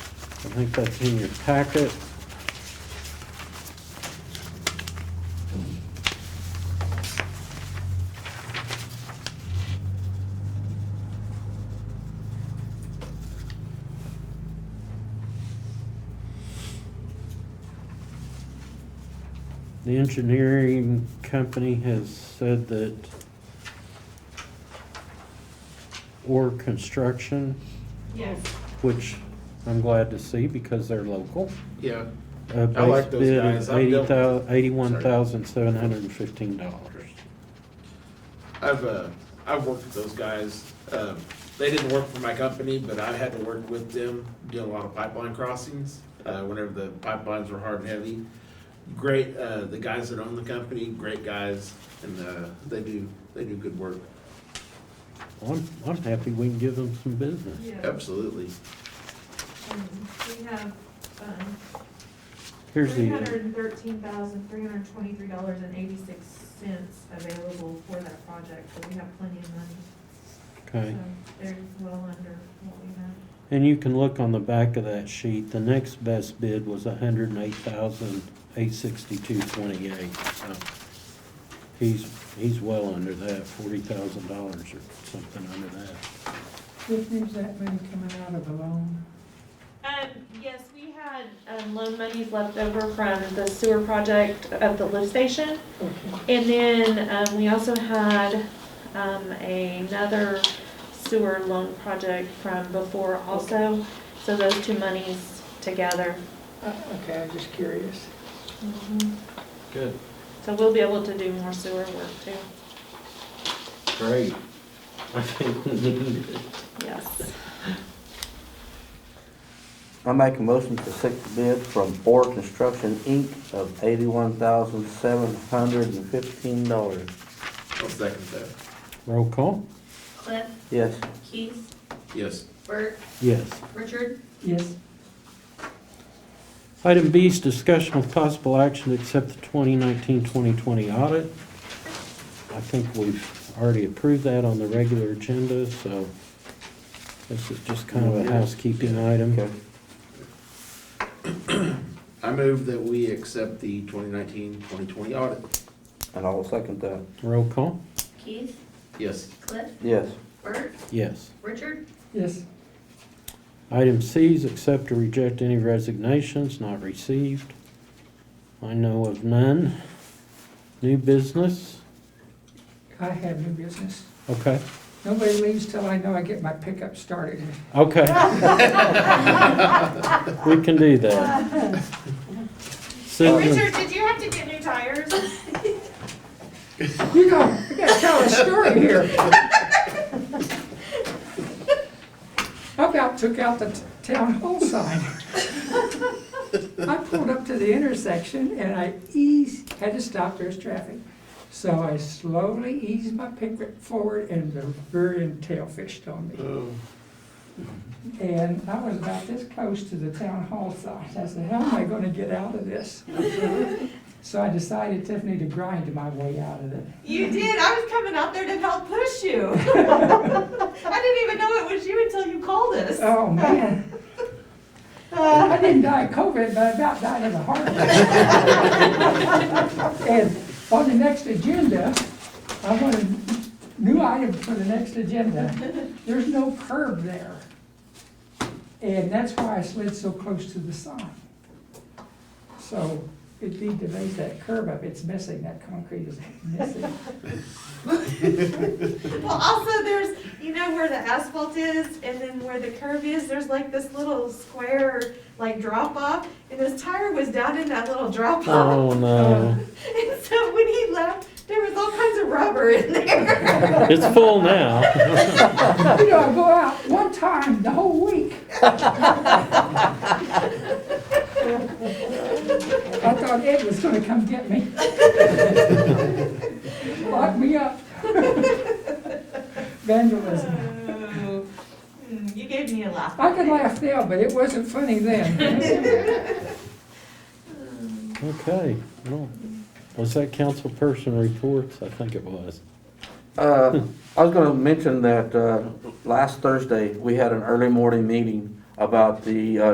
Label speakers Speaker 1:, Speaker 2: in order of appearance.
Speaker 1: I think that's in your packet. The engineering company has said that or construction
Speaker 2: Yes.
Speaker 1: which I'm glad to see because they're local.
Speaker 3: Yeah,
Speaker 1: A
Speaker 3: I like
Speaker 1: base
Speaker 3: those
Speaker 1: bid
Speaker 3: guys.
Speaker 1: of
Speaker 3: I've
Speaker 1: eighty
Speaker 3: dealt-
Speaker 1: thou, eighty-one thousand seven hundred and fifteen dollars.
Speaker 3: I've, uh, I've worked with those guys. Um, they didn't work for my company, but I had to work with them, doing a lot of pipeline crossings, uh, whenever the pipelines were hard and heavy. Great, uh, the guys that own the company, great guys, and, uh, they do, they do good work.
Speaker 1: I'm, I'm happy we can give them some business.
Speaker 2: Yeah.
Speaker 3: Absolutely.
Speaker 2: And We have, um,
Speaker 1: Here's
Speaker 2: three
Speaker 1: the,
Speaker 2: hundred and thirteen thousand, three hundred and twenty-three dollars and eighty-six cents available for that project, so we have plenty of money.
Speaker 1: okay,
Speaker 2: So they're well under what we have.
Speaker 1: and you can look on the back of that sheet, the next best bid was a hundred and eight thousand eight sixty-two twenty-eight, so. He's, he's well under that, forty thousand dollars or something under that.
Speaker 4: Which means that money coming out of the loan.
Speaker 5: Um, yes, we had, um, loan monies left over from the sewer project of the lift station. And then, um, we also had, um, another sewer loan project from before also. So those two monies together.
Speaker 4: Uh, Okay, I'm just curious.
Speaker 3: Good.
Speaker 5: Mm-hmm. So we'll be able to do more sewer work too.
Speaker 6: Great. I think we need it.
Speaker 5: Yes.
Speaker 7: I make a motion to accept the bid from Orr Construction Inc. of eighty-one thousand seven hundred and fifteen dollars.
Speaker 3: I'll second that.
Speaker 1: Roll call?
Speaker 8: Cliff,
Speaker 7: Yes.
Speaker 8: Keith,
Speaker 3: Yes.
Speaker 8: Bert,
Speaker 1: Yes.
Speaker 8: Richard,
Speaker 4: Yes,
Speaker 1: Item B is discussion of possible action to accept the 2019-2020 audit. I think we've already approved that on the regular agenda, so this is just kind of a housekeeping item.
Speaker 7: Okay.
Speaker 3: I move that we accept the 2019-2020 audit.
Speaker 7: And I will second that.
Speaker 1: Roll call?
Speaker 8: Keith,
Speaker 3: Yes.
Speaker 8: Cliff,
Speaker 7: Yes.
Speaker 8: Bert,
Speaker 1: Yes.
Speaker 8: Richard,
Speaker 4: yes,
Speaker 1: Item C is accept or reject any resignations not received. I know of none. New business?
Speaker 4: I have new business.
Speaker 1: Okay,
Speaker 4: Nobody leaves till I know I get my pickup started.
Speaker 1: okay. We can do that. Susan,
Speaker 5: Richard, did you have to get new tires?
Speaker 4: You gotta, you gotta tell a story here. I about took out the t- town hall sign. I pulled up to the intersection and I eased, had to stop, there's traffic. So I slowly eased my pickup forward and the rear end tail fished on me. And I was about this close to the town hall sign. I said, how am I gonna get out of this? So I decided, Tiffany, to grind my way out of it.
Speaker 2: You did, I was coming out there to help push you. I didn't even know it was you until you called us.
Speaker 4: Oh, man. I didn't die of COVID, but I about died of a heart attack. And on the next agenda, I want a new item for the next agenda. There's no curb there. And that's why I slid so close to the sign. So it'd be to raise that curb up. It's missing, that concrete is missing.
Speaker 2: Well, also there's, you know where the asphalt is and then where the curve is, there's like this little square, like drop off. And his tire was down in that little drop off.
Speaker 1: oh no.
Speaker 2: And so when he left, there was all kinds of rubber in there.
Speaker 1: It's full now.
Speaker 4: You know, I go out one time the whole week. I thought Ed was gonna come get me. Lock me up. Vandalism.
Speaker 2: Oh, mm, You gave me a laugh.
Speaker 4: I could laugh now, but it wasn't funny then.
Speaker 1: Okay, well, was that council person reports? I think it was.
Speaker 7: Uh, I was gonna mention that, uh, last Thursday, we had an early morning meeting about the, uh,